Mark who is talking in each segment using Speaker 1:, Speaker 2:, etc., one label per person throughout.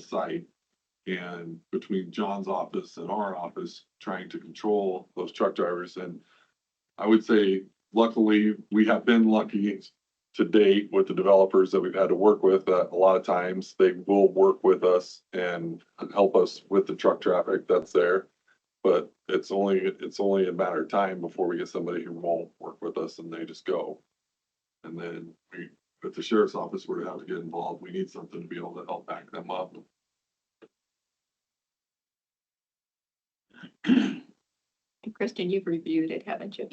Speaker 1: site. And between John's office and our office, trying to control those truck drivers and I would say luckily, we have been lucky to date with the developers that we've had to work with. Uh, A lot of times, they will work with us and help us with the truck traffic that's there. But it's only, it's only a matter of time before we get somebody who won't work with us and they just go. And then we, if the sheriff's office were to have to get involved, we need something to be able to help back them up.
Speaker 2: And Kristen, you've reviewed it, haven't you?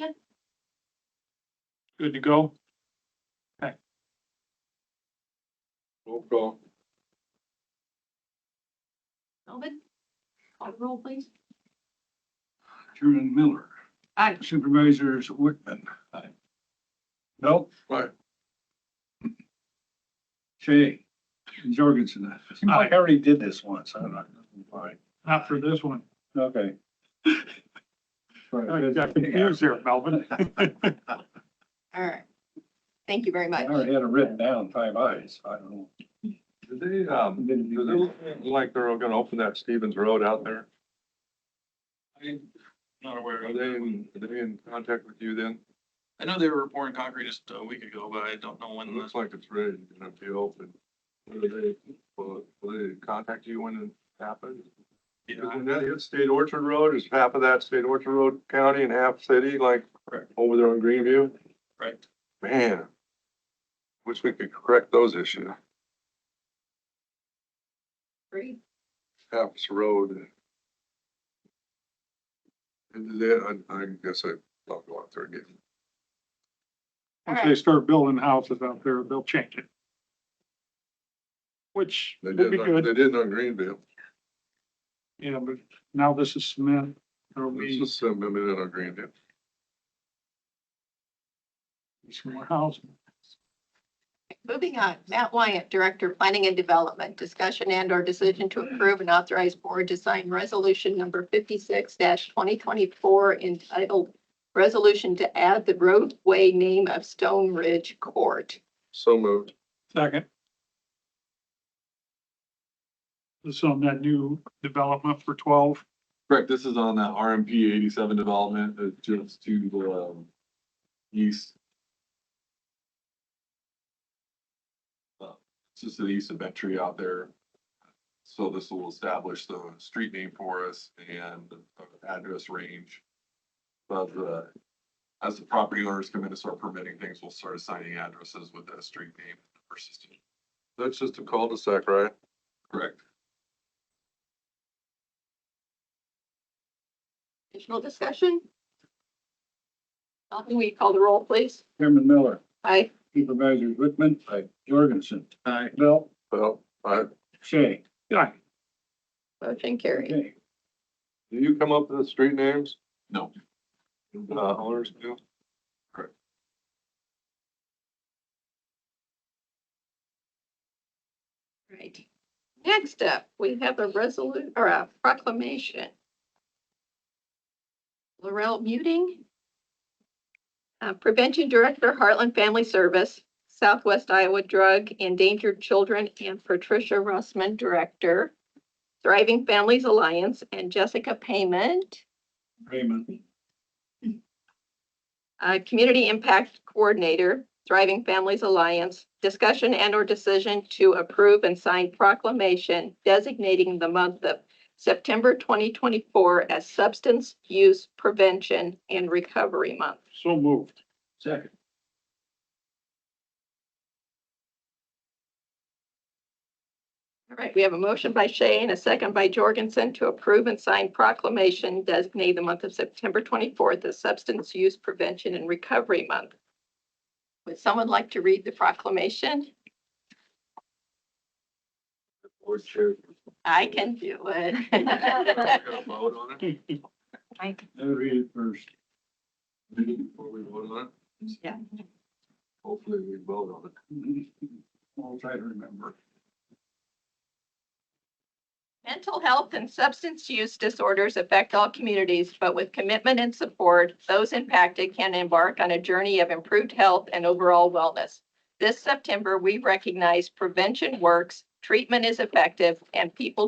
Speaker 3: Good to go?
Speaker 1: Roll call.
Speaker 2: Melvin? Call the roll, please.
Speaker 3: Chairman Miller.
Speaker 2: Aye.
Speaker 3: Supervisors Wickman. Aye. Belt.
Speaker 1: Aye.
Speaker 3: Shay. Jorgensen.
Speaker 4: Seems like I already did this once. I'm not. Fine.
Speaker 3: Not for this one.
Speaker 4: Okay.
Speaker 3: I got confused there, Melvin.
Speaker 2: All right. Thank you very
Speaker 4: I
Speaker 2: much.
Speaker 4: already had it written down, five eyes. I don't know.
Speaker 1: Did they, um,
Speaker 4: Didn't
Speaker 1: does it
Speaker 4: do
Speaker 1: look like they're gonna open that Stevens Road out there?
Speaker 5: Not aware
Speaker 1: Are
Speaker 5: of
Speaker 1: they,
Speaker 5: that.
Speaker 1: in- are they in contact with you then?
Speaker 5: I know they were pouring concrete just a week ago, but I don't know
Speaker 1: It
Speaker 5: when
Speaker 1: looks
Speaker 5: this,
Speaker 1: like it's ready to be open. Will they, will will they contact you when it happens? Isn't that it, State Orchard Road, is half of that State Orchard Road county and half city, like
Speaker 5: Correct.
Speaker 1: over there on Greenview?
Speaker 5: Correct.
Speaker 1: Man, wish we could correct those issues,
Speaker 2: Three.
Speaker 1: half this road. And then, I, I guess I don't go out there again.
Speaker 2: All
Speaker 3: Once they
Speaker 2: right.
Speaker 3: start building houses out there, they'll change it. Which
Speaker 1: They
Speaker 3: would
Speaker 1: did,
Speaker 3: be
Speaker 1: it on-
Speaker 3: good,
Speaker 1: they did it on Greenville,
Speaker 3: yeah, but now this is cement. There'll
Speaker 1: this
Speaker 3: be
Speaker 1: is some, I mean, on Greenville.
Speaker 3: some more houses.
Speaker 2: Moving on, Matt Wyatt, Director of Planning and Development, discussion and or decision to approve and authorize board to sign resolution number fifty-six twenty twenty-four entitled Resolution to add the roadway name of Stone Ridge Court.
Speaker 1: So moved.
Speaker 3: Second. This is on that new development for twelve.
Speaker 1: Correct, this is on that RMP eighty-seven development, uh, just to the, um, east. Uh, It's just to the east of Bentry out there. So this will establish the street name for us and the address range. But, uh, as the property owners come in and start permitting things, we'll start assigning addresses with that street name versus. That's just a cul-de-sac, right? Correct.
Speaker 2: Additional discussion? Melvin, will you call the roll, please?
Speaker 4: Chairman Miller,
Speaker 2: Aye.
Speaker 4: Supervisors Wickman. Aye. Jorgensen. Aye. Belt.
Speaker 1: Well, I,
Speaker 4: Shay.
Speaker 3: Yeah,
Speaker 2: Motion carried.
Speaker 4: Okay.
Speaker 1: Do you come up with the street names? No.
Speaker 5: Uh, owners
Speaker 1: do? Correct.
Speaker 2: Right. Next up, we have a resolution or a proclamation. Laurel Muting. Uh, Prevention Director, Heartland Family Service, Southwest Iowa Drug Endangered Children, and Patricia Russman, Director, Thriving Families Alliance, and Jessica Payment,
Speaker 4: Raymond.
Speaker 2: uh, Community Impact Coordinator, Thriving Families Alliance, discussion and/or decision to approve and sign proclamation designating the month of September 2024 as Substance Use Prevention and Recovery Month.
Speaker 3: so moved.
Speaker 4: Second.
Speaker 2: All right, we have a motion by Shay and a second by Jorgensen to approve and sign proclamation designating the month of September 24th as Substance Use Prevention and Recovery Month. Would someone like to read the proclamation?
Speaker 1: Board chair.
Speaker 2: I can do
Speaker 1: We
Speaker 2: it.
Speaker 1: gotta vote on it
Speaker 4: I read it first.
Speaker 1: before we vote on it?
Speaker 2: Yeah.
Speaker 1: Hopefully we vote on it.
Speaker 4: I'll try to remember.
Speaker 2: Mental health and substance use disorders affect all communities, but with commitment and support, those impacted can embark on a journey of improved health and overall wellness. This September, we recognize Prevention Works treatment is effective, and people